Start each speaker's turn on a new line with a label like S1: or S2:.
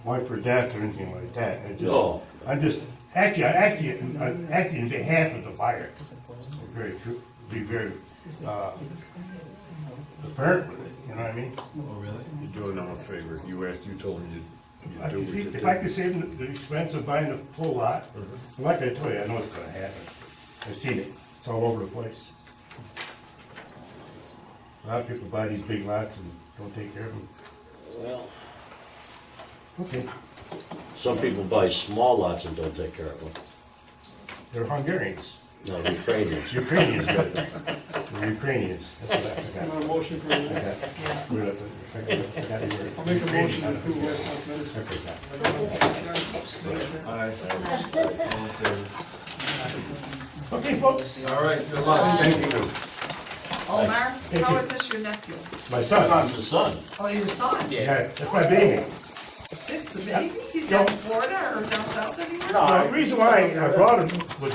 S1: wife or death or anything like that. I just,
S2: No.
S1: I'm just, actually, I'm acting, I'm acting in behalf of the buyer. Very true, be very, uh, apparent with it, you know what I mean?
S3: Oh, really?
S2: You're doing them a favor. You asked, you told him you'd,
S1: I
S2: you'd do
S1: could
S2: what you
S1: keep-
S2: did.
S1: If I could save the- the expense of buying the full lot,
S2: Mm-hmm.
S1: like I told you, I know it's gonna happen. I've seen it, it's all over the place. A lot of people buy these big lots and don't take care of them.
S2: Well,
S1: Okay,
S2: some people buy small lots and don't take care of them.
S1: they're Hungarians,
S2: No, the Ukrainians.
S1: Ukrainians, but they're Ukrainians, that's what I forgot.
S3: a motion for
S1: I
S3: that?
S1: got- I got- I got the word.
S3: I'll make a motion to
S1: Ukrainian.
S3: approve West Park Minutes.
S1: I forgot.
S3: Aye.
S1: Okay, folks,
S3: All right, good luck.
S1: thank you.
S4: Omar,
S1: Thank
S4: how
S1: you.
S4: is this your nephew?
S1: My
S2: That's
S1: son,
S2: the son.
S4: Oh, your son?
S1: yeah, that's my baby.
S4: It's the baby? He's down in
S1: No.
S4: Florida or down south anywhere?
S3: Uh,
S1: The reason why I brought him was